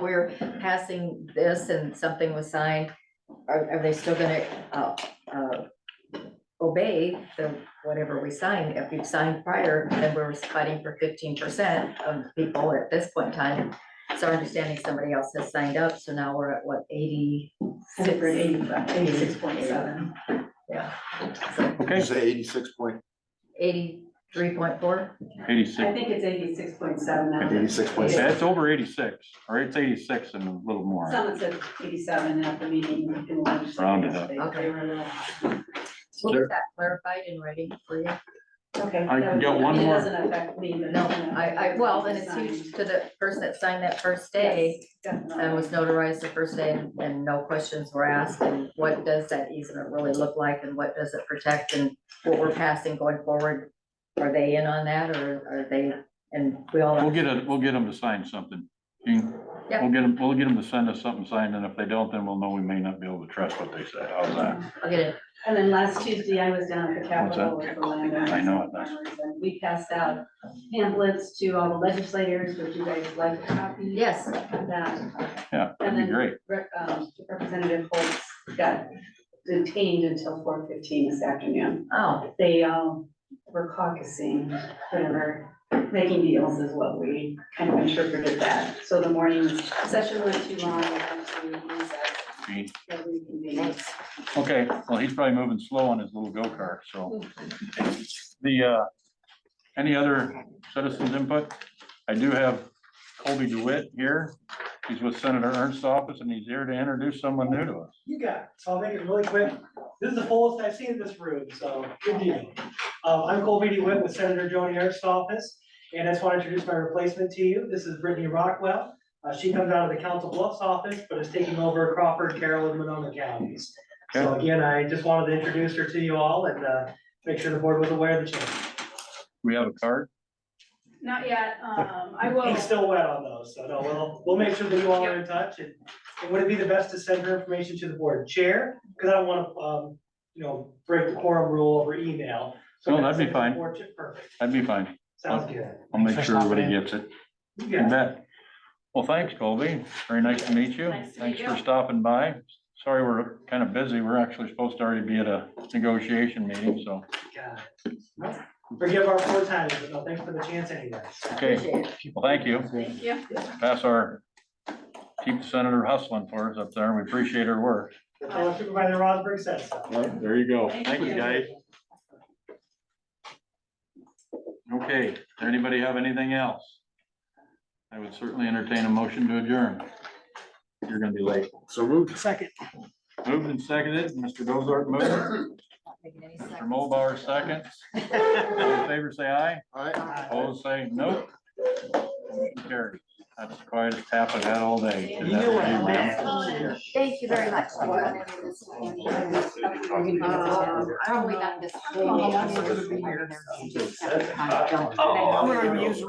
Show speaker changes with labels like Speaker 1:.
Speaker 1: we're passing this and something was signed, are, are they still gonna, uh, uh, obey the, whatever we sign? If we've signed prior, then we're fighting for fifteen percent of people at this point in time. So our understanding somebody else has signed up, so now we're at what, eighty-six?
Speaker 2: Eighty-six point seven.
Speaker 1: Yeah,
Speaker 3: Okay,
Speaker 4: say eighty-six point,
Speaker 1: eighty-three point four?
Speaker 2: I
Speaker 3: eighty-six,
Speaker 2: think it's eighty-six point seven now.
Speaker 4: eighty-six point
Speaker 3: yeah,
Speaker 4: seven.
Speaker 3: it's over eighty-six, or it's eighty-six and a little more.
Speaker 2: Someone said eighty-seven at the meeting in the legislature.
Speaker 3: Rounded up.
Speaker 2: yesterday. They were uh, a little-
Speaker 1: We'll
Speaker 3: There-
Speaker 1: get that clarified and ready for you.
Speaker 2: Okay.
Speaker 3: I
Speaker 2: that was-
Speaker 3: got
Speaker 2: mean,
Speaker 3: one
Speaker 2: It
Speaker 3: more.
Speaker 2: doesn't affect me, but.
Speaker 1: No,
Speaker 2: you know,
Speaker 1: I, I, well, and it's
Speaker 2: signed.
Speaker 1: huge to the person that signed that first day
Speaker 2: Yes, definitely.
Speaker 1: and was notarized the first day and- and no questions were asked. And what does that easement really look like and what does it protect and what we're passing going forward? Are they in on that or are they, and we
Speaker 3: We'll
Speaker 1: all,
Speaker 3: get a, we'll get them to sign something. Jean,
Speaker 1: Yeah.
Speaker 3: We'll get them, we'll get them to send us something signed, and if they don't, then we'll know we may not be able to trust what they said. How's that?
Speaker 1: I'll get it.
Speaker 2: And then last Tuesday, I was down at the Capitol with
Speaker 3: What's that?
Speaker 2: the landowners.
Speaker 3: I know it does.
Speaker 2: And We passed out pamphlets to all the legislators, would you guys like a copy?
Speaker 1: Yes.
Speaker 2: Of that.
Speaker 3: Yeah, that'd
Speaker 2: And
Speaker 3: be
Speaker 2: then-
Speaker 3: great.
Speaker 2: Re- um, Representative Holtz got detained until four fifteen this afternoon.
Speaker 1: Oh,
Speaker 2: They um were caucusing, whatever, making deals is what we kind of interpreted that. So the morning session went too long, we had to recess,
Speaker 3: Jean.
Speaker 2: so we convened.
Speaker 3: Okay, well, he's probably moving slow on his little go-kart, so. The, uh, any other citizens input? I do have Colby DeWitt here. He's with Senator Ernst's office, and he's here to introduce someone new to us.
Speaker 5: You got it. So I'll make it really quick. This is the fullest I've seen in this room, so good deal. Um, I'm Colby DeWitt with Senator Joni Ernst's office, and I just want to introduce my replacement to you. This is Brittany Rockwell. Uh, she comes out of the Council Bluffs office, but is taking over Crawford, Carroll, and Monona counties. So again, I just wanted to introduce her to you all and, uh, make sure the board was aware of the change.
Speaker 3: We have a card?
Speaker 6: Not yet, um, I will,
Speaker 5: He's still wet on those, so no, we'll, we'll make sure that you all are in touch, and, and would it be the best to send her information to the board chair? Cause I don't wanna, um, you know, break the quorum rule over email. So
Speaker 3: No, Oh, that'd be
Speaker 5: send it to the
Speaker 3: fine.
Speaker 5: board chair- Perfect,
Speaker 3: That'd be fine.
Speaker 5: sounds good.
Speaker 3: I'll make sure everybody gets it. You
Speaker 5: Yeah,
Speaker 3: bet. Well, thanks, Colby. Very nice to meet you.
Speaker 6: Nice to meet
Speaker 3: Thanks for
Speaker 6: you.
Speaker 3: stopping by. Sorry, we're kind of busy. We're actually supposed to already be at a negotiation meeting, so.
Speaker 5: got it. Forgive our poor timing, but no, thanks for the chance anyway.
Speaker 3: Okay,
Speaker 1: appreciate it.
Speaker 3: well, thank you.
Speaker 6: thank you.
Speaker 3: Pass our, keep the senator hustling for us up there. We appreciate her work.
Speaker 5: Tell Supervisor Rosberg said so.
Speaker 3: There you go.
Speaker 2: Thank Thank you, you. guys.
Speaker 3: Okay, does anybody have anything else? I would certainly entertain a motion to adjourn. You're gonna be late.
Speaker 4: So moved.
Speaker 5: Second.
Speaker 3: Moved and seconded, Mr. Dozart moved,
Speaker 1: Not making any
Speaker 3: Mr.
Speaker 1: sense.
Speaker 3: Mulbauer second. All in favor, say aye.
Speaker 4: All right.
Speaker 3: Opposed, say no. Motion carries. That's quite a tap I've had all day.
Speaker 5: You knew what I meant.
Speaker 1: Thank you very much.
Speaker 2: Um,
Speaker 6: Um,
Speaker 1: Uh, Probably not this.
Speaker 5: Oh, I'm gonna use